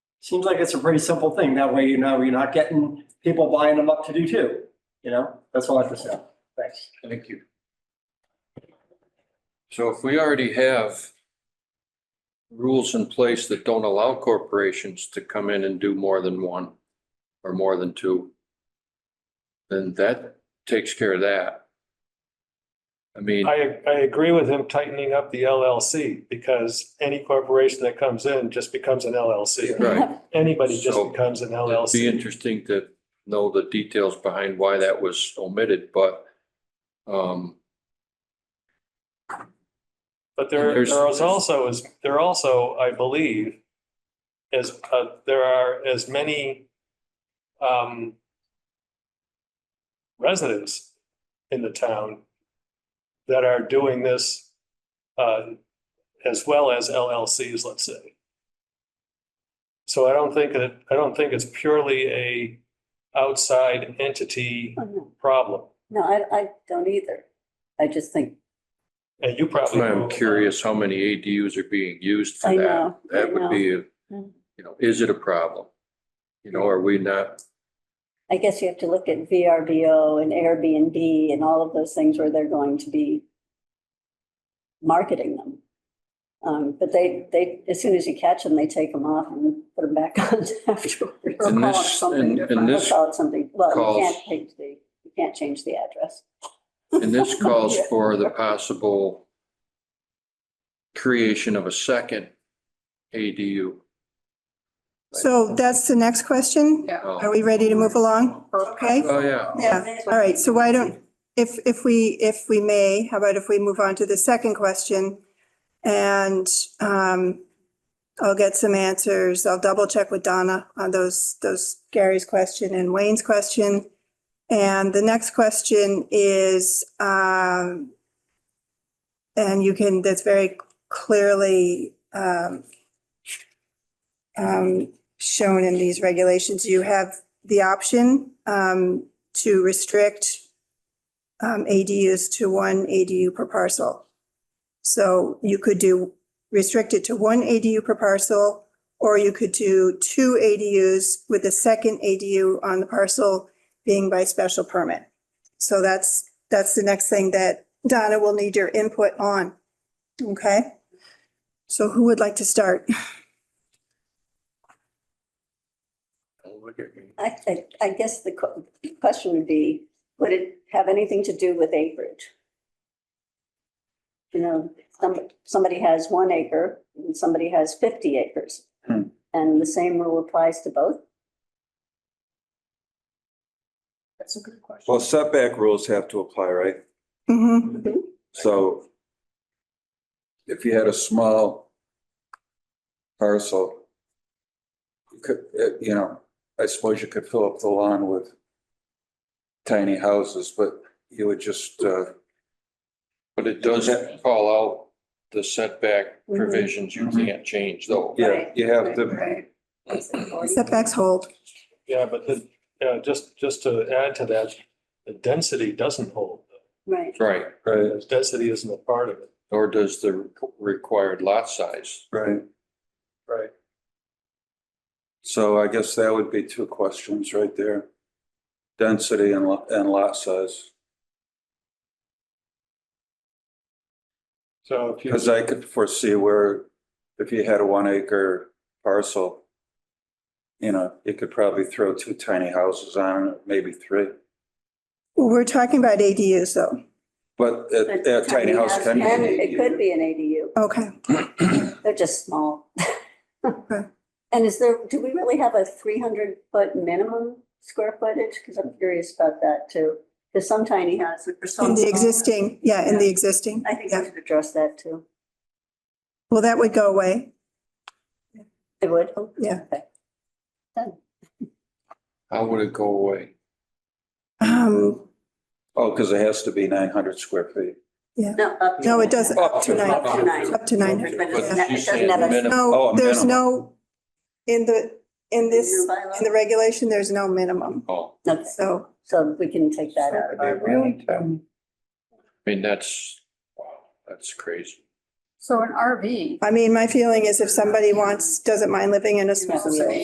Seems like it's a pretty simple thing. That way, you know, you're not getting people buying them up to do two. You know, that's all I have to say. Thanks. Thank you. So if we already have rules in place that don't allow corporations to come in and do more than one or more than two, then that takes care of that. I mean, I, I agree with him tightening up the LLC because any corporation that comes in just becomes an LLC. right, Anybody just So, becomes an it'd be LLC. interesting to know the details behind why that was omitted, but um, But there, There's- there is also, is, there also, I believe, is, uh, there are as many, um, residents in the town that are doing this, uh, as well as LLCs, let's say. So I don't think that, I don't think it's purely a outside entity Oh, no, problem. no, I, I don't either. I just think, And you that's probably. why I'm know- curious how many ADUs are being used for I that. know, I That would know. be, a- Mm. you know, is it a problem? You know, are we not, I guess you have to look at VRBO and Airbnb and all of those things where they're going to be marketing them. Um, but they, they, as soon as you catch them, they take them off and put them back on afterwards. Or And call it this- something and- and different. Or this Call it something, well, you calls- can't change the, you can't change the address. and this calls for the possible creation of a second ADU. So that's the next question. Are Oh, we ready to move along? Okay. oh, yeah. Yeah. All right. So why don't, if, if we, if we may, how about if we move on to the second question? And um, I'll get some answers. I'll double check with Donna on those, those Gary's question and Wayne's question. And the next question is, um, and you can, that's very clearly um, um, shown in these regulations. You have the option um, to restrict um, ADUs to one ADU per parcel. So you could do, restrict it to one ADU per parcel, or you could do two ADUs with a second ADU on the parcel being by special permit. So that's, that's the next thing that Donna will need your input on. Okay? So who would like to start? Don't look at me. I, I, I guess the que- question would be, would it have anything to do with acreage? You know, somebody, somebody has one acre and somebody has fifty acres. Hmm. And the same rule applies to both? That's a good question. Well, setback rules have to apply, right? Mhm. Mm-hmm. So if you had a small parcel, you could, eh, you know, I suppose you could fill up the lawn with tiny houses, but you would just, uh, But it does call out the setback Mhm. provisions. You can't change though. Mm-hmm. yeah, Right, you have to, Setbacks hold. Yeah, but the, yeah, just, just to add to that, the density doesn't hold. Right, Right, right, Because Density isn't a part of it. or does the required lot size. right. Right. So I guess that would be two questions right there. Density and lot, and lot size. So if you, Because I could foresee where if you had a one acre parcel, you know, you could probably throw two tiny houses on it, maybe three. Well, We're talking about ADUs though. But a a tiny house can be. And it could be an ADU, Okay. they're just small. Okay. And is there, do we really have a three hundred foot minimum square footage? Because I'm curious about that too. Because some tiny houses are so. In the small. existing, yeah, in the existing. I think yeah. we should address that too. Well, that would go away. It would? Oh, Yeah. Okay. How would it go away? Um, Oh, because it has to be nine hundred square feet. No, up to No, it nine. doesn't, up to Up to nine, nine. up to nine. But it's But not- you it doesn't said have a- minimum. Oh, No, a there's minimum. no, in the, in this, New in the bylaw? regulation, there's no minimum. Oh, Okay, So, So we can take that out of our. I mean, that's, wow, that's crazy. So an RV I mean, my feeling is if somebody wants, doesn't mind living in a small Small.